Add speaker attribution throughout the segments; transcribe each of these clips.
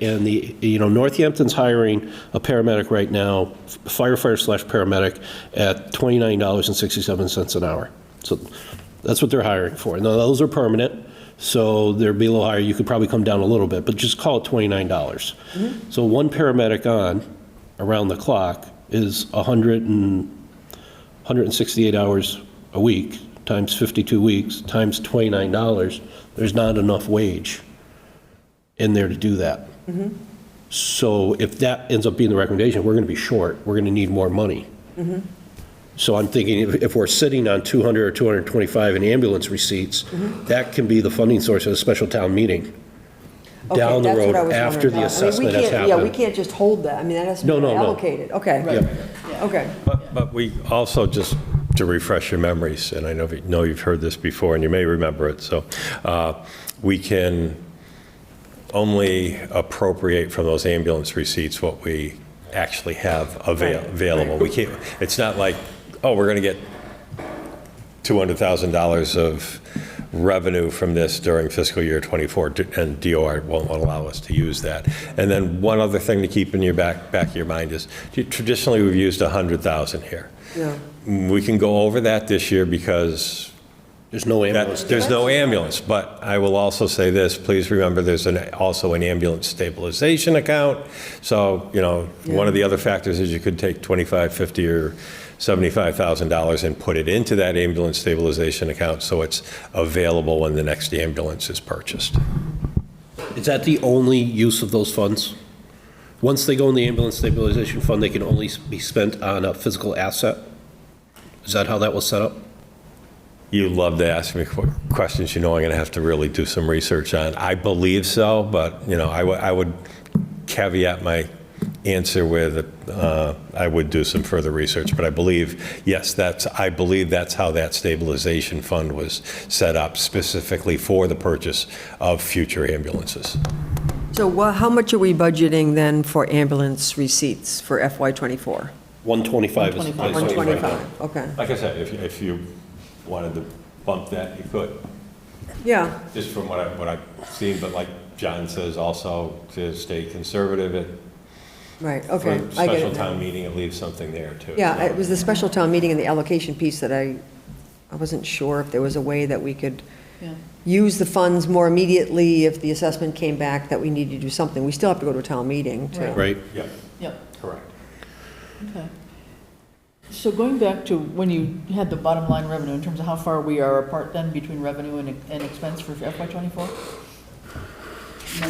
Speaker 1: And the, you know, Northampton's hiring a paramedic right now, firefighter slash paramedic, at $29.67 an hour. So that's what they're hiring for. Now, those are permanent, so they're be a little higher. You could probably come down a little bit, but just call it $29. So one paramedic on, around the clock, is 100 and 168 hours a week, times 52 weeks, times $29, there's not enough wage in there to do that. So if that ends up being the recommendation, we're going to be short, we're going to need more money. So I'm thinking if- if we're sitting on 200 or 225 in ambulance receipts, that can be the funding source of a special town meeting
Speaker 2: Okay,
Speaker 1: down the
Speaker 2: that's what
Speaker 1: road
Speaker 2: I was
Speaker 1: after the
Speaker 2: wondering. I mean, we
Speaker 1: assessment has
Speaker 2: can't-
Speaker 1: happened.
Speaker 2: Yeah, we can't just hold that. I mean, that has to
Speaker 1: No,
Speaker 2: be
Speaker 1: no, no.
Speaker 2: allocated. Okay, okay.
Speaker 3: But, but we also, just to refresh your memories, and I know, you know you've heard this before, and you may remember it, so, uh, we can only appropriate from those ambulance receipts what we actually have avail- available. We can't, it's not like, oh, we're going to get $200,000 of revenue from this during fiscal year '24, and DOR won't allow us to use that. And then one other thing to keep in your back, back of your mind is, traditionally, we've used 100,000 here.
Speaker 2: Yeah.
Speaker 3: We can go over that this year because
Speaker 1: There's no ambulance.
Speaker 3: that, there's no ambulance, but I will also say this, please remember, there's an, also an ambulance stabilization account. So, you know, one of the other factors is you could take 25, 50, or 75,000 dollars and put it into that ambulance stabilization account, so it's available when the next ambulance is purchased.
Speaker 1: Is that the only use of those funds? Once they go in the ambulance stabilization fund, they can only be spent on a physical asset? Is that how that was set up?
Speaker 3: You love to ask me qu- questions you know I'm going to have to really do some research on. I believe so, but, you know, I would- I would caveat my answer with, uh, I would do some further research, but I believe, yes, that's, I believe that's how that stabilization fund was set up specifically for the purchase of future ambulances.
Speaker 2: So wha- how much are we budgeting then for ambulance receipts for FY '24?
Speaker 1: 125 is the place.
Speaker 2: 125, okay.
Speaker 3: Like I said, if you- if you wanted to bump that, you could.
Speaker 2: Yeah,
Speaker 3: just from what I, what I've seen, but like John says also, to stay conservative at,
Speaker 2: right, okay.
Speaker 3: for
Speaker 2: I get
Speaker 3: special
Speaker 2: it now.
Speaker 3: town meeting, it leaves something there too.
Speaker 2: Yeah, it was the special town meeting and the allocation piece that I, I wasn't sure if there was a way that we could
Speaker 4: Yeah.
Speaker 2: use the funds more immediately if the assessment came back that we need to do something. We still have to go to a town meeting to.
Speaker 4: Right.
Speaker 1: Right?
Speaker 3: Yeah,
Speaker 4: Yep,
Speaker 3: correct.
Speaker 4: okay. So going back to when you had the bottom line revenue, in terms of how far we are apart then between revenue and, and expense for FY twenty-four?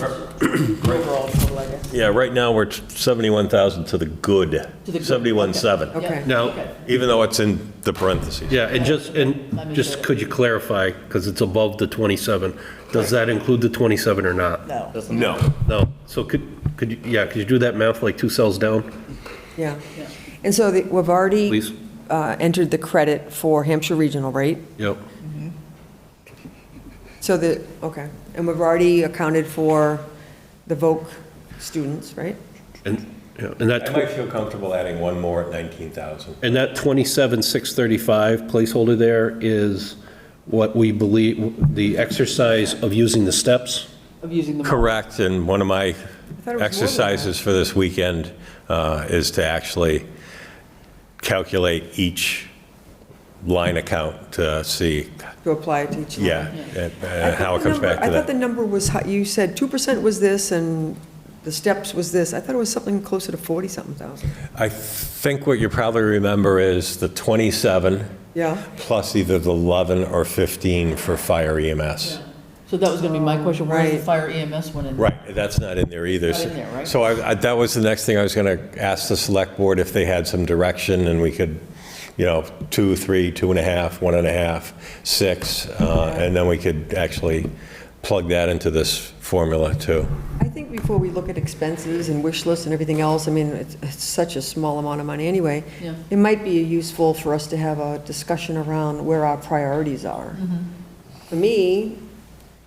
Speaker 4: Overall total, I guess.
Speaker 3: Yeah, right now, we're 71,000 to the good,
Speaker 4: To the good, okay.
Speaker 3: 71.7,
Speaker 2: Okay.
Speaker 4: Yeah,
Speaker 1: Now-
Speaker 4: okay.
Speaker 3: even though it's in the parentheses.
Speaker 1: Yeah, and just,
Speaker 4: Let
Speaker 1: and
Speaker 4: me
Speaker 1: just
Speaker 4: see.
Speaker 1: could you clarify, because it's above the 27, does that include the 27 or not?
Speaker 4: No,
Speaker 3: No,
Speaker 1: No, so could, could, you yeah, could you do that math like two cells down,
Speaker 2: Yeah.
Speaker 4: Yeah.
Speaker 2: And so the- we've already
Speaker 1: please?
Speaker 2: uh, entered the credit for Hampshire Regional, right?
Speaker 1: Yep.
Speaker 2: So the, okay, and we've already accounted for the VOC students, right?
Speaker 1: And, yeah, and that,
Speaker 3: I
Speaker 1: tw-
Speaker 3: might feel comfortable adding one more at 19,000.
Speaker 1: and that 27,635 placeholder there is what we believe, the exercise of using the steps?
Speaker 4: of using the.
Speaker 3: Correct, and one of my
Speaker 2: thought it was more than that.
Speaker 3: exercises for this weekend uh, is to actually calculate each line account to see,
Speaker 2: To apply to each line.
Speaker 3: yeah, and, uh, how it comes back
Speaker 2: I
Speaker 3: to
Speaker 2: thought the
Speaker 3: that.
Speaker 2: number was, hi- you said 2% was this and the steps was this. I thought it was something closer to 40-something thousand.
Speaker 3: I think what you probably remember is the 27
Speaker 2: Yeah,
Speaker 3: plus either the 11 or 15 for fire E EMS.
Speaker 4: So that was gonna be my question, where's the
Speaker 2: Right.
Speaker 4: fire E EMS one in? there?
Speaker 3: Right, that's not in there either.
Speaker 4: Not in there, right?
Speaker 3: So I, I- that was the next thing I was going to ask the select board if they had some direction and we could, you know, two, three, two and a half, one and a half, six, uh, and then we could actually plug that into this formula too.
Speaker 2: I think before we look at expenses and wish lists and everything else, I mean, it's it's such a small amount of money anyway.
Speaker 4: Yeah.
Speaker 2: It might be useful for us to have a discussion around where our priorities are.
Speaker 4: Mm-hmm.
Speaker 2: For me,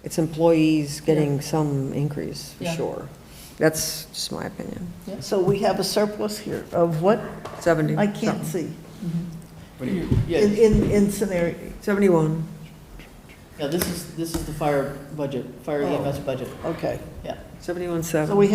Speaker 2: it's employees getting some increase, for
Speaker 4: Yeah.
Speaker 2: sure. That's just my opinion.
Speaker 5: So we have a surplus here of what?
Speaker 2: 70.
Speaker 5: I can't see. In,
Speaker 4: Yeah,
Speaker 5: in, in scenario,
Speaker 2: 71.
Speaker 4: yeah, this is, this is the fire budget, fire
Speaker 5: Oh.
Speaker 4: EMS budget,
Speaker 5: okay.
Speaker 4: yeah.
Speaker 2: 71, 7.
Speaker 5: So we